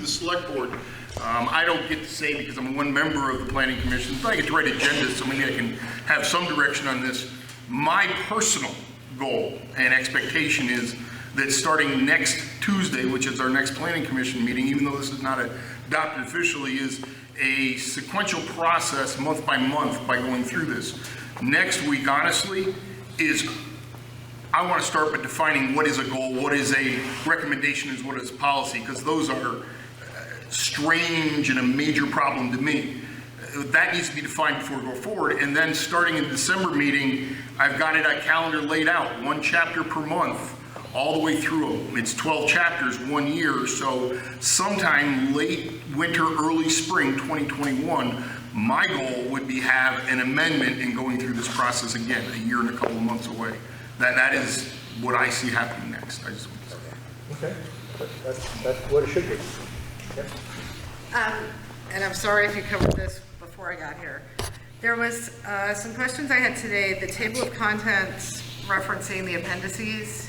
the select board, um, I don't get to say because I'm one member of the planning commission, but I get to write agendas, so maybe I can have some direction on this. My personal goal and expectation is that starting next Tuesday, which is our next planning commission meeting, even though this is not adopted officially, is a sequential process, month by month, by going through this. Next week, honestly, is I want to start by defining what is a goal, what is a recommendation, is what is policy, because those are uh, strange and a major problem to me. Uh, That needs to be defined before we go forward. And then, starting in December meeting, I've got it, a calendar laid out, one chapter per month, all the way through. 'em. It's 12 chapters, one year, so sometime late winter, early spring 2021, my goal would be have an amendment in going through this process again, a year and a couple of months away. That, that is what I see happening next. I just, Okay, That- that's, that's what it should be. Yep. Um, And I'm sorry if you covered this before I got here. There was uh, some questions I had today, the table of contents referencing the appendices.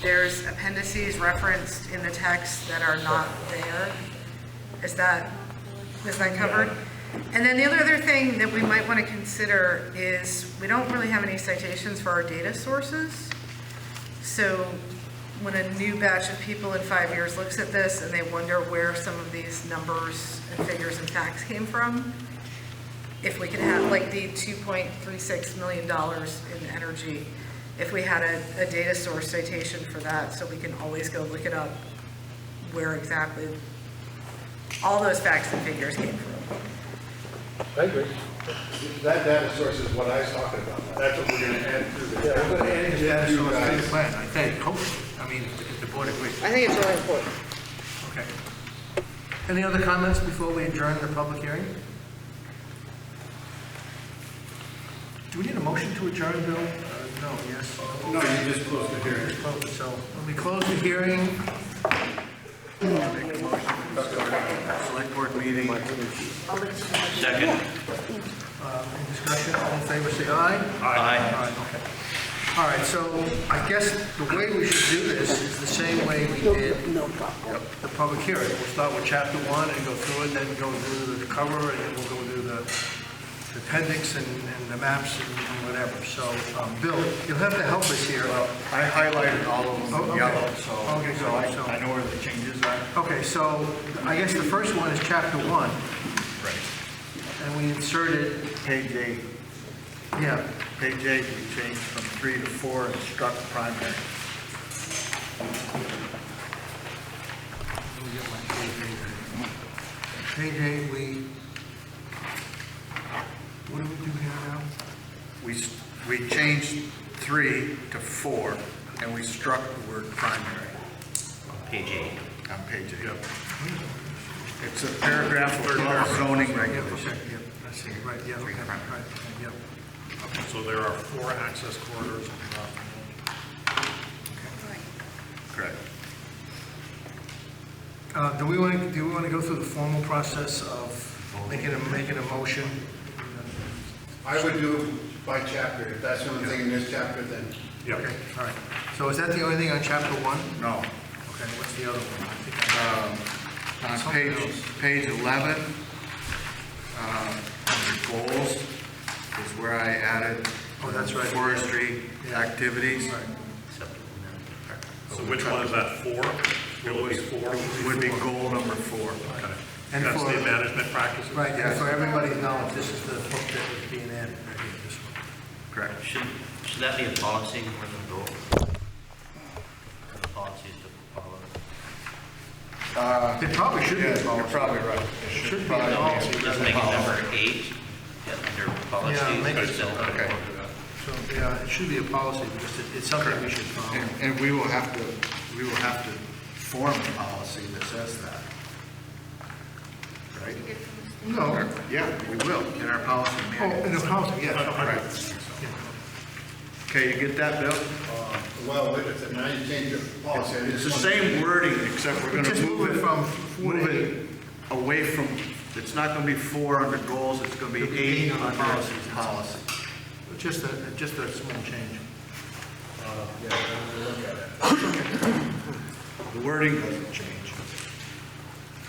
There's appendices referenced in the text that are not there. Is that, is that covered? And then the other, other thing that we might want to consider is, we don't really have any citations for our data sources. So when a new batch of people in five years looks at this and they wonder where some of these numbers and figures and facts came from, if we could have like the $2.36 million in energy, if we had a, a data source citation for that, so we can always go look it up where exactly all those facts and figures came from. I agree. That data source is what I was talking about. That's what we're gonna add to the. Yeah, we're gonna add it to Yeah, you Good guys. plan, I think, hopefully, I mean, if if the board agrees, I think it's really important. okay. Any other comments before we adjourn the public hearing? Do we need a motion to adjourn, Bill? Uh, No, yes? No, you just closed the hearing. Close, So, when we close the hearing, make a motion to start our select board meeting. Second? Uh, Any discussion, all in favor, say aye. Aye. All right, okay. All right, so I guess the way we should do this is the same way we did the public hearing. We'll start with chapter one and go through it, then go through the cover, and then we'll go through the the appendix and and the maps and and whatever. So, um, Bill, you'll have to help us here. I highlighted all of Oh, them okay. in yellow, so, Okay, so I so- I know where the changes are. Okay, so I guess the first one is chapter one, Right. and we inserted, Page eight, yeah, page eight, we changed from three to four and struck primary. Let me get my Page eight, Page eight, we, what do we do here now? We, s- we changed three to four, and we struck the word primary Page eight. on page eight. It's a paragraph above zoning Yeah, regulations. okay, yeah, I see, right, yeah, okay, right, yeah. So there are four access corridors. Correct. Uh, do we want to, do we want to go through the formal process of making a, making a motion? I would do by chapter. If that's the only thing in this chapter, then Yeah. Okay, all right. So is that the only thing on chapter one? No. Okay, what's the other one? I think I- On Uh, page, page 11, um, under goals, is where I added. Oh, that's right. Forestry activities. So which one is that, four? It would be four. Would be goal number four. Okay. And That's for- the management practices? Right, yeah, so everybody knows this is the book that was being added, right here, this one. Correct. Should, should that be a policy more than a goal? Policies to follow. It probably should be Yeah, a you're policy. probably right. It Should be a probably policy. Just make it number eight, yeah, under policies. make it instead of- okay. So, yeah, it should be a policy because it- it's something we should follow. And, and we will have to, we will have to form a policy that says that. Right? No. Yeah, we will, in our policy Oh, in manual. a policy, Oh, yeah. Right. Okay, you get that, Bill? Well, wait a second, now you change your policy. I It's just the wanted- same wording, except we're gonna Just move it from from, four to move it away from, it's not gonna be four under goals, it's gonna be It'll be eight eight on under policies. policy. Just a, just a small change. Uh, The wording doesn't change.